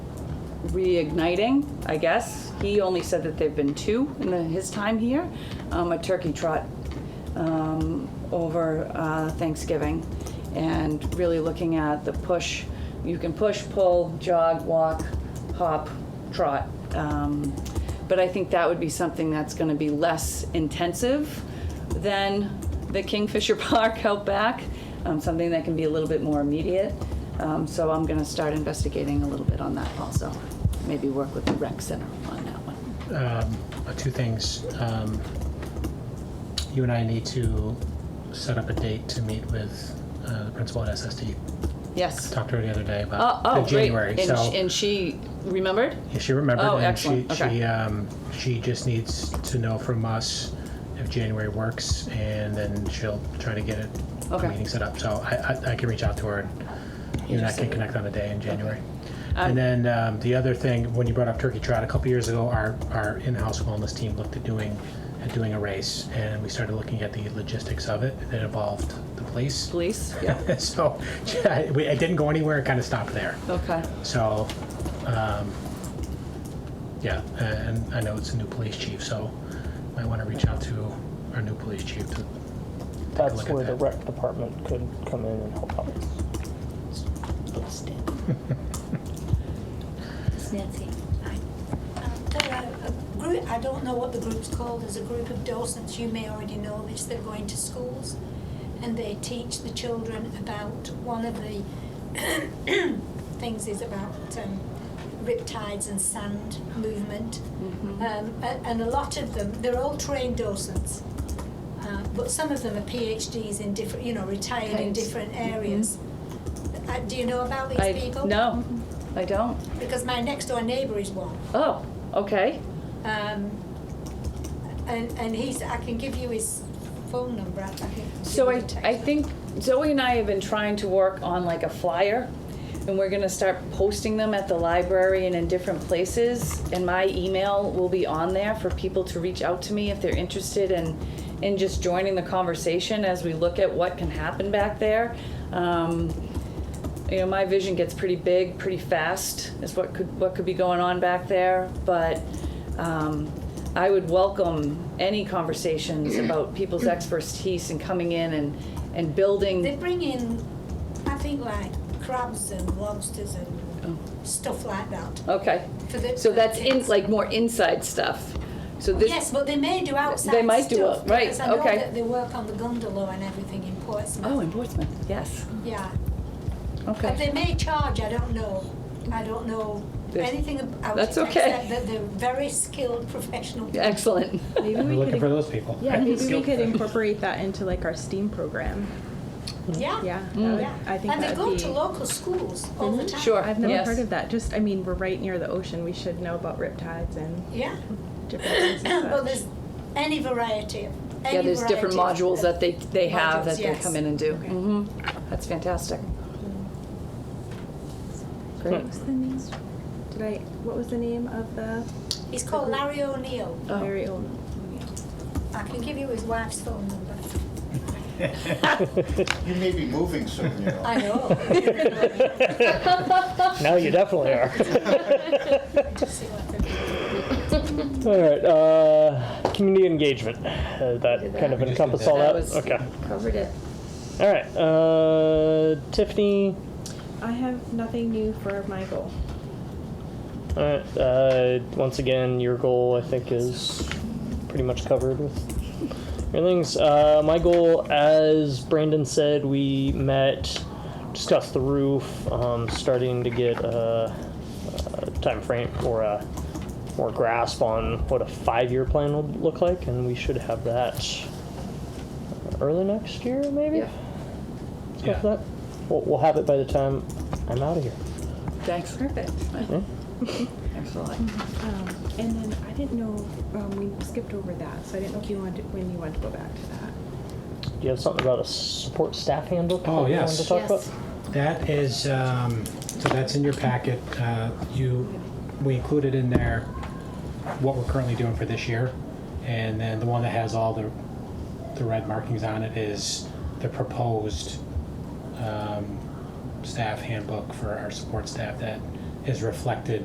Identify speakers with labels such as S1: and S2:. S1: reigniting, I guess. He only said that there've been two in the- his time here, um, a turkey trot um, over uh, Thanksgiving, and really looking at the push. You can push, pull, jog, walk, hop, trot. Um, but I think that would be something that's going to be less intensive than the Kingfisher Park out back. Um, something that can be a little bit more immediate. Um, so I'm going to start investigating a little bit on that also. Maybe work with the rec center on that one.
S2: um, uh, two things. Um, you and I need to set up a date to meet with uh, the principal at SSD.
S1: Yes.
S2: Talked to her the other day
S1: Oh,
S2: about
S1: oh,
S2: the January.
S1: great. And,
S2: so
S1: sh- and she remembered?
S2: yeah, she remembered,
S1: Oh,
S2: and she
S1: excellent. Okay.
S2: she um, she just needs to know from us if January works, and then she'll try to get it a
S1: Okay.
S2: meeting set up. So I, I, I can reach out to her. and You and I can connect on a day in January.
S1: Um,
S2: And then um, the other thing, when you brought up Turkey Trot, a couple years ago, our, our in-house wellness team looked at doing at doing a race, and we started looking at the logistics of it. It involved the police,
S1: Police? Yeah.
S2: so yeah, we, it didn't go anywhere. It kind of stopped there.
S1: Okay.
S2: So, um, yeah, and I know it's a new police chief, so might want to reach out to our new police chief. To,
S3: That's
S2: look at
S3: where
S2: that.
S3: the rec department could come in and help out.
S4: It's Nancy.
S5: Um, there are a group, I don't know what the group's called, there's a group of docents, you may already know this, they're going to schools and they teach the children about, one of the things is about um, riptides and sand movement. Um, a- and a lot of them, they're all trained docents, uh, but some of them are PhDs in different, you know, retired in
S1: Right.
S5: different areas. Uh, do you know about these
S1: I,
S5: people?
S1: No, I don't.
S5: Because my next door neighbour is one.
S1: Oh, okay.
S5: Um, and, and he's, I can give you his phone number, I can. give
S1: So
S5: you
S1: I,
S5: the text.
S1: I think Zoe and I have been trying to work on like a flyer, and we're gonna start posting them at the library and in different places. And my email will be on there for people to reach out to me if they're interested in, in just joining the conversation as we look at what can happen back there. Um, you know, my vision gets pretty big, pretty fast, is what could, what could be going on back there, but, um, I would welcome any conversations about people's expertise and coming in and, and
S5: They
S1: building.
S5: bring in, I think like crabs and lobsters and stuff like that
S1: Okay,
S5: for the. for
S1: Oh. so
S5: the
S1: that's in,
S5: kids.
S1: like more inside stuff, so this.
S5: Yes, but they may do outside
S1: They might do
S5: stuff,
S1: out- right,
S5: because I know
S1: okay.
S5: that They work on the gondola and everything in Portsmouth.
S1: Oh, in Portsmouth, yes,
S5: Yeah, but
S1: okay.
S5: they may charge, I don't know, I don't know
S1: There's-
S5: anything about it,
S1: that's
S5: except
S1: okay.
S5: that they're very skilled professional people.
S1: Excellent.
S6: Maybe
S2: we're
S6: we
S2: looking
S6: could,
S2: for those people.
S6: yeah, maybe we could incorporate that into like our STEAM program.
S5: Yeah.
S6: Yeah, that would-
S5: Yeah.
S6: I think
S5: Mm. and they
S6: that
S5: go
S6: would
S5: to
S6: be.
S5: local schools all the time.
S1: Mm-hmm. Sure.
S6: I've never
S1: Yes.
S6: heard of that. Just, I mean, we're right near the ocean. We should know about riptides and
S5: Yeah.
S6: different things. and
S5: well,
S6: such.
S5: there's any variety. of- Any
S1: Yeah, there's different
S5: variety of-
S1: modules that they, they have
S5: Modules,
S1: that they
S5: yes.
S1: come in and do. hmm that's fantastic. Great, Hmm.
S5: Mm-hmm.
S6: What was the name? Did I? What was the name of the
S5: He's called Larry O'Neill.
S1: Oh.
S6: very old?
S5: I can give you his wife's phone number.
S7: You may be moving soon, you know.
S5: I know.
S3: Now you definitely are.
S5: Just see what they're-
S3: All right, uh, community engagement. Uh, that kind of
S2: We just did
S3: encompass
S2: that.
S3: all
S1: That
S3: that.
S1: was-
S3: okay.
S6: Covered it.
S3: All right, uh, Tiffany.
S6: I have nothing new for my goal.
S3: All right. Uh, once again, your goal I think is pretty much covered with your things. Uh, my goal, as Brandon said, we met, discussed the roof, um, starting to get a, a time frame or a more grasp on what a five-year plan will look like, and we should have that early next year, maybe.
S1: Yeah.
S3: Let's go
S2: Yeah.
S3: for that. We'll, we'll have it by the time I'm out of here.
S1: thanks.
S6: Perfect.
S1: Excellent.
S6: Um, and then I didn't know um, we skipped over that, so I didn't know if you wanted when you wanted to go back to that.
S3: Do you have something about a support staff handbook?
S2: Oh,
S3: that you
S2: yes.
S3: wanted to talk
S6: Yes.
S3: about?
S2: That is, um, so that's in your packet. Uh, You, we included in there what we're currently doing for this year. And then the one that has all the, the red markings on it is the proposed um, staff handbook for our support staff that is reflected